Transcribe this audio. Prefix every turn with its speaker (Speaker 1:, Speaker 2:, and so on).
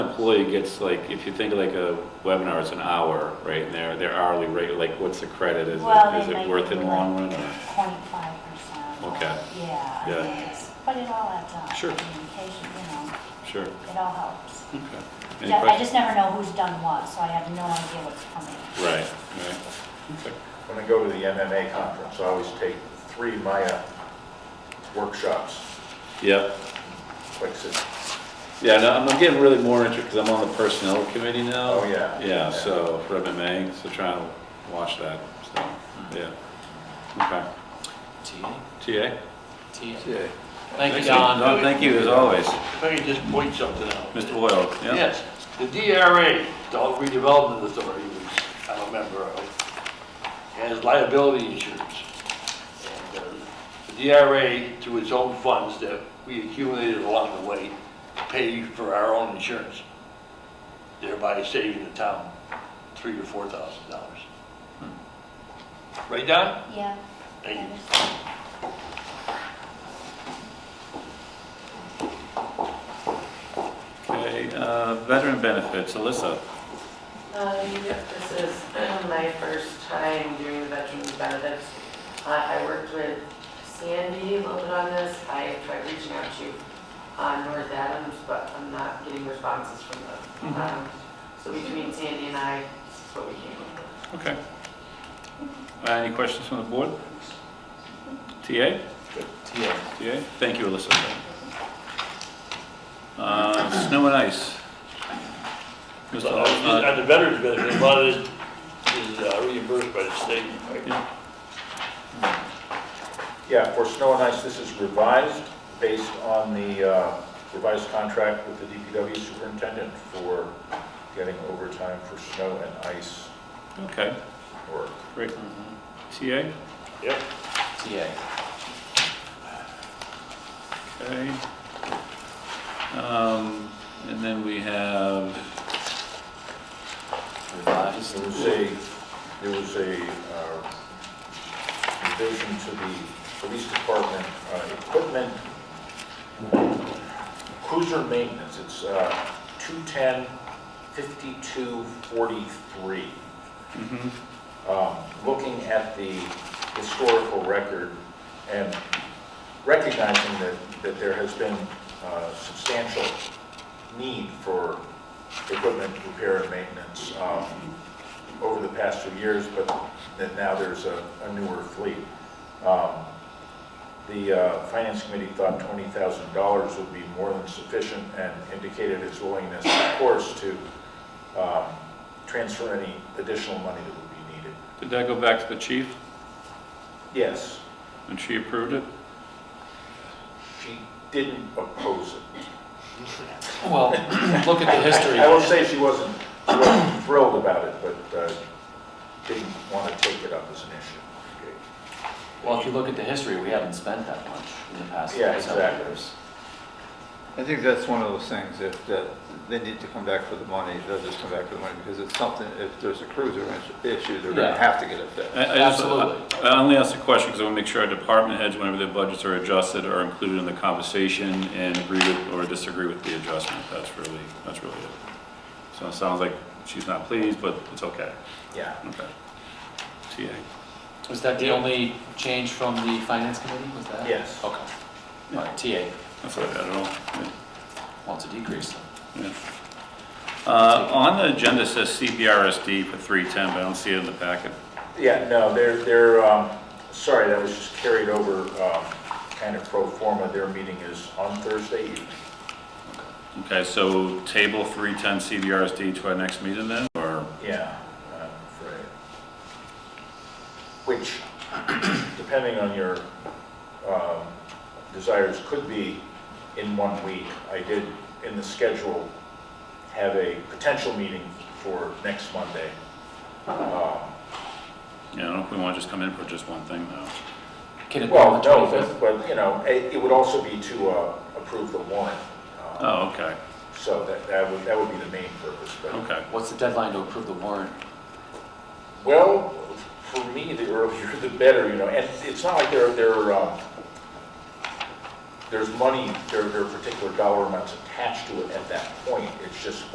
Speaker 1: employee gets like, if you think of like a webinar, it's an hour, right, and their, their hourly rate, like, what's the credit, is
Speaker 2: Well,
Speaker 1: it, is
Speaker 2: they
Speaker 1: it
Speaker 2: might
Speaker 1: worth it in the
Speaker 2: be
Speaker 1: long
Speaker 2: like
Speaker 1: run? or-
Speaker 2: Twenty-five percent.
Speaker 1: Okay.
Speaker 2: Yeah. I
Speaker 1: Yeah.
Speaker 2: mean, it's- But it all adds up.
Speaker 1: Sure.
Speaker 2: Communication, you know,
Speaker 1: Sure,
Speaker 2: it all helps.
Speaker 1: okay. Any
Speaker 2: Ju- I
Speaker 1: questions?
Speaker 2: just never know who's done what, so I have no idea what's coming.
Speaker 1: Right, right, okay,
Speaker 3: When I go to the MMA conference, I always take three Maya workshops,
Speaker 1: yep.
Speaker 3: like, so-
Speaker 1: Yeah, no, I'm I'm getting really more interested, because I'm on the personnel committee now.
Speaker 3: Oh, yeah.
Speaker 1: Yeah, so for MMA, so trying to watch that, so, yeah.
Speaker 3: Mm-hmm.
Speaker 1: Okay.
Speaker 4: TA?
Speaker 1: TA?
Speaker 4: TA. Thank you,
Speaker 1: Thanks,
Speaker 4: Don.
Speaker 1: Thank you, as always.
Speaker 5: If I could just point something out.
Speaker 1: Mr. Boyle, yeah?
Speaker 5: Yes, the DRA, Adult Redevelopment Authority, which I'm a member of, has liability insurance. And uh, The DRA, through its own funds that we accumulated along the way, pay for our own insurance, thereby saving the town three to four thousand dollars. Right, Don?
Speaker 2: Yeah.
Speaker 5: Thank you.
Speaker 1: Okay, uh, veteran benefits, Alyssa.
Speaker 6: Uh, yep, this is my first time doing veterans benefits. Uh, I worked with Sandy a little bit on this. I tried reaching out to uh, North Adams, but I'm not getting responses from them. Um, So between Sandy and I, this is what we came up with.
Speaker 1: Okay. Uh, Any questions from the board? TA?
Speaker 4: TA.
Speaker 1: TA? Thank you, Alyssa. Uh, Snow and ice. Mr.
Speaker 5: So,
Speaker 1: Hall-
Speaker 5: uh,
Speaker 1: uh,
Speaker 5: On the veterans benefit, a lot of it is uh, reimbursed by the state, right?
Speaker 1: uh, yeah.
Speaker 3: yeah, for snow and ice, this is revised based on the uh, revised contract with the DPW superintendent for getting overtime for snow and ice
Speaker 1: Okay,
Speaker 3: work.
Speaker 1: great. TA?
Speaker 5: Yep.
Speaker 4: TA.
Speaker 1: Okay. Um, And then we have,
Speaker 4: Revised.
Speaker 3: There was a, there was a uh, revision to the police department uh, equipment, cruiser maintenance, it's uh, 210 5243. Um, Looking at the historical record and recognizing that, that there has been uh, substantial need for equipment repair and maintenance, um, over the past few years, but that now there's a a newer fleet. Um, The uh, Finance Committee thought $20,000 would be more than sufficient and indicated its willingness, of course, to um, transfer any additional money that would be needed.
Speaker 1: did that go back to the chief
Speaker 3: Yes,
Speaker 1: and she approved it?
Speaker 3: she didn't oppose it.
Speaker 4: Well, look at the history.
Speaker 3: I will say she wasn't she wasn't thrilled about it, but uh, didn't want to take it up as an issue.
Speaker 4: Well, if you look at the history, we haven't spent that much in the past
Speaker 3: Yeah,
Speaker 4: several
Speaker 3: exactly.
Speaker 4: years.
Speaker 7: I think that's one of those things, if that, they need to come back for the money, they'll just come back for the money, because it's something, if there's a cruiser issue, they're
Speaker 4: Yeah.
Speaker 7: gonna have to get it fixed.
Speaker 1: I- I just-
Speaker 4: Absolutely.
Speaker 1: I I only ask the question because I want to make sure our department heads, whenever their budgets are adjusted, are included in the conversation and agree with or disagree with the adjustment. That's really, that's really it. So it sounds like she's not pleased, but it's okay.
Speaker 3: Yeah.
Speaker 1: Okay. TA.
Speaker 4: Was that the only change from the finance committee, was that?
Speaker 3: Yes.
Speaker 4: Okay. All right, TA,
Speaker 1: That's all I got at all. Yeah.
Speaker 4: wants a decrease then.
Speaker 1: Yeah. Uh, On the agenda says CBRSD for 310, but I don't see it in the packet.
Speaker 3: Yeah, no, they're, they're, um, sorry, that was just carried over, um, kind of pro forma. Their meeting is on Thursday evening.
Speaker 1: Okay, so table 310 CBRSD to our next meeting then, or?
Speaker 3: Yeah, I'm afraid. Uh, Which, depending on your, um, desires, could be in one week. I did, in the schedule, have a potential meeting for next Monday. Um,
Speaker 1: You know, if we want to just come in for just one thing though.
Speaker 4: Can it be
Speaker 3: Well,
Speaker 4: on the
Speaker 3: no,
Speaker 4: 25th?
Speaker 3: but, but, you know, it, it would also be to, uh, approve the warrant. um,
Speaker 1: Oh, okay,
Speaker 3: So that, that would, that would be the main purpose, but,
Speaker 1: okay.
Speaker 4: What's the deadline to approve the warrant?
Speaker 3: well, for me, the earlier the better, you know, and it's not like there, there, um, there's money, there, there are particular dollar amounts attached to it at that point, it's just